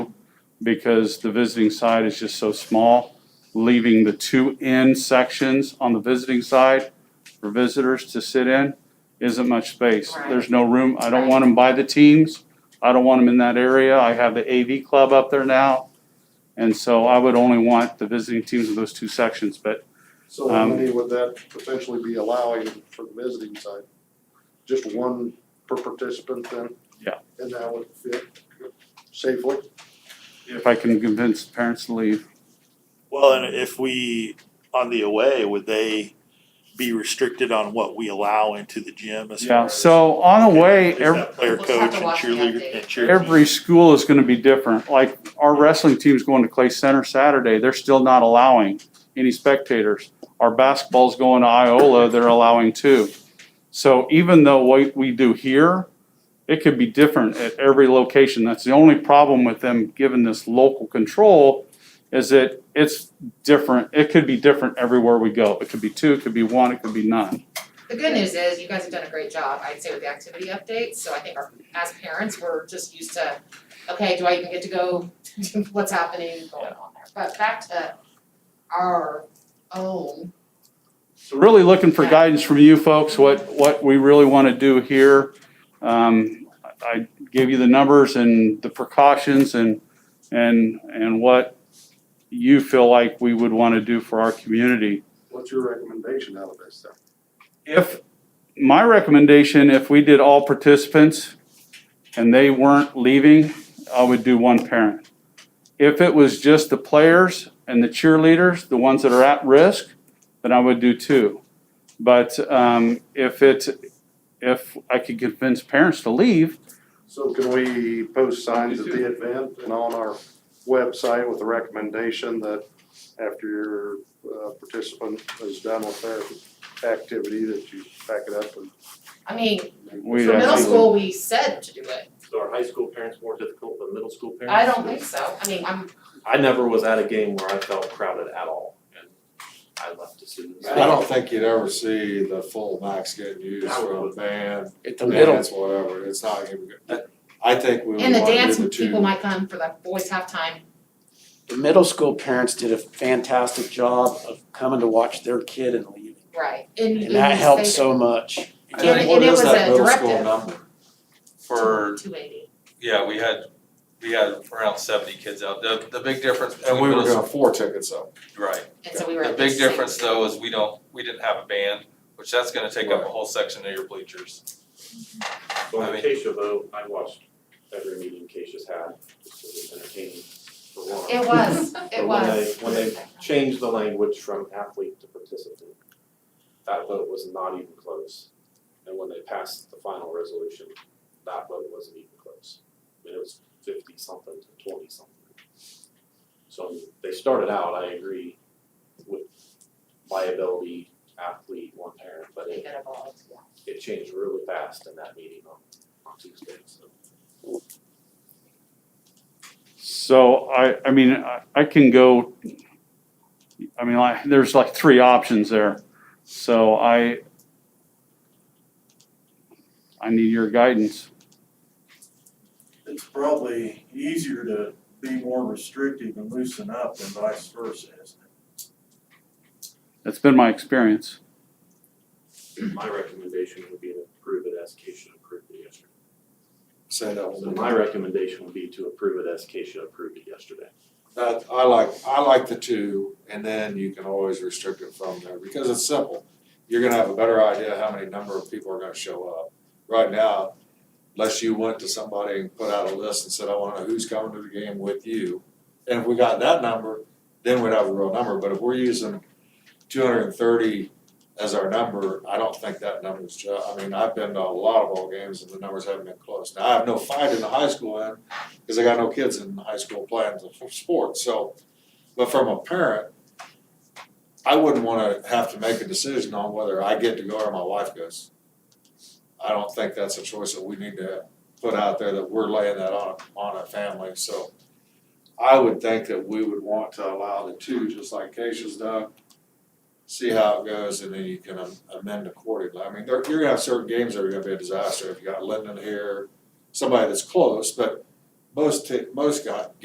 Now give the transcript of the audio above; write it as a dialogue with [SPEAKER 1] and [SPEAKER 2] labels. [SPEAKER 1] because the visiting side is just so small, leaving the two end sections on the visiting side for visitors to sit in isn't much space.
[SPEAKER 2] Right.
[SPEAKER 1] There's no room. I don't
[SPEAKER 2] Right.
[SPEAKER 1] want them by the teams. I don't want them in that area. I have the AV club up there now. And so I would only want the visiting teams in those two sections, but
[SPEAKER 3] So how many would that potentially be allowing for the visiting side? Just one per participant then?
[SPEAKER 1] Yeah.
[SPEAKER 3] And that would fit safely?
[SPEAKER 1] if I can convince parents to leave,
[SPEAKER 4] Well, and if we, on the away, would they be restricted on what we allow into the gym as far
[SPEAKER 1] yeah.
[SPEAKER 4] as?
[SPEAKER 1] So on the way,
[SPEAKER 4] Is
[SPEAKER 1] every.
[SPEAKER 4] that Player
[SPEAKER 2] We'll just have
[SPEAKER 4] coach
[SPEAKER 2] to
[SPEAKER 4] and
[SPEAKER 2] watch the
[SPEAKER 4] cheerleader
[SPEAKER 2] update.
[SPEAKER 4] and cheerleader.
[SPEAKER 1] every school is gonna be different, like our wrestling team's going to Clay Center Saturday, they're still not allowing any spectators. Our basketball's going to Iola, they're allowing two. So even though what we do here, it could be different at every location, that's the only problem with them giving this local control is that it's different, it could be different everywhere we go, it could be two, it could be one, it could be none.
[SPEAKER 2] The good news is you guys have done a great job, I'd say, with the activity updates, so I think our, as parents, we're just used to, okay, do I even get to go, what's happening, going on there, but back to our own,
[SPEAKER 1] So really looking for guidance from you folks, what, what we really want to do here. Um, I gave you the numbers and the precautions and, and, and what you feel like we would want to do for our community.
[SPEAKER 3] What's your recommendation out of this then?
[SPEAKER 1] If, my recommendation, if we did all participants and they weren't leaving, I would do one parent. If it was just the players and the cheerleaders, the ones that are at risk, then I would do two. But um, if it, if I could convince parents to leave,
[SPEAKER 3] So can we post signs at the event and on our website with a recommendation that after your uh, participant is done with their activity, that you pack it up and
[SPEAKER 2] I mean, for
[SPEAKER 1] we'd
[SPEAKER 2] middle
[SPEAKER 1] actually.
[SPEAKER 2] school, we said to do it,
[SPEAKER 5] So are high school parents more difficult than middle school parents?
[SPEAKER 2] I don't think so, I mean, I'm,
[SPEAKER 5] I never was at a game where I felt crowded at all, and I left as soon as.
[SPEAKER 6] I don't think you'd ever see the full max getting used from a band,
[SPEAKER 7] At the middle,
[SPEAKER 6] dance, whatever, it's not even good. I think we would
[SPEAKER 2] and the
[SPEAKER 6] want
[SPEAKER 2] dance,
[SPEAKER 6] to do the two.
[SPEAKER 2] people might come for the boys halftime,
[SPEAKER 7] the middle school parents did a fantastic job of coming to watch their kid and leaving.
[SPEAKER 2] right, and
[SPEAKER 7] And that helped so much.
[SPEAKER 6] I
[SPEAKER 2] And-
[SPEAKER 6] think-
[SPEAKER 2] and
[SPEAKER 6] what
[SPEAKER 2] it
[SPEAKER 6] is
[SPEAKER 2] was
[SPEAKER 6] that
[SPEAKER 2] a
[SPEAKER 6] middle school
[SPEAKER 2] directive.
[SPEAKER 6] number?
[SPEAKER 8] for,
[SPEAKER 2] Two eighty,
[SPEAKER 8] yeah, we had, we had around seventy kids out. The, the big difference between
[SPEAKER 6] And we were
[SPEAKER 8] middle
[SPEAKER 6] gonna four tickets up.
[SPEAKER 8] s- right.
[SPEAKER 2] and so we were
[SPEAKER 8] The
[SPEAKER 2] at
[SPEAKER 8] big
[SPEAKER 2] same.
[SPEAKER 8] difference though is we don't, we didn't have a band, which that's gonna take up a whole section of your bleachers.
[SPEAKER 5] So
[SPEAKER 8] I
[SPEAKER 5] in
[SPEAKER 8] mean-
[SPEAKER 5] Acacia though, I watched every meeting Acacia's had, just it was entertaining for one.
[SPEAKER 2] It was, it
[SPEAKER 5] But
[SPEAKER 2] was.
[SPEAKER 5] when they, when they changed the language from athlete to participant, that vote was not even close. And when they passed the final resolution, that vote wasn't even close. I mean, it was fifty something to twenty something. So I mean, they started out, I agree, with liability, athlete, one parent, but
[SPEAKER 2] They
[SPEAKER 5] it,
[SPEAKER 2] could have all, yeah.
[SPEAKER 5] it changed really fast in that meeting on, on Tuesday, so.
[SPEAKER 1] So I, I mean, I, I can go, I mean, like, there's like three options there. So I, I need your guidance.
[SPEAKER 9] it's probably easier to be more restrictive and loosen up than vice versa, isn't it?
[SPEAKER 1] That's been my experience.
[SPEAKER 5] My recommendation would be to approve it as Keisha approved it yesterday.
[SPEAKER 6] Say that
[SPEAKER 5] So
[SPEAKER 6] one more
[SPEAKER 5] my
[SPEAKER 6] time.
[SPEAKER 5] recommendation would be to approve it as Keisha approved it yesterday.
[SPEAKER 6] That, I like, I like the two, and then you can always restrict it from there, because it's simple. You're gonna have a better idea how many number of people are gonna show up. Right now, unless you went to somebody and put out a list and said, I wanna know who's coming to the game with you. And if we got that number, then we'd have a real number, but if we're using two hundred and thirty as our number, I don't think that number's ju- I mean, I've been to a lot of ball games and the numbers haven't been close. Now, I have no fight in the high school end, because I got no kids in high school playing the sport, so. But from a parent, I wouldn't wanna have to make a decision on whether I get to go or my wife goes. I don't think that's a choice that we need to put out there, that we're laying that on, on a family, so. I would think that we would want to allow the two, just like Keisha's done. See how it goes, and then you can am- amend accordingly. I mean, there, you're gonna have certain games that are gonna be a disaster, if you got Linden here, somebody that's close, but most, ta- most got,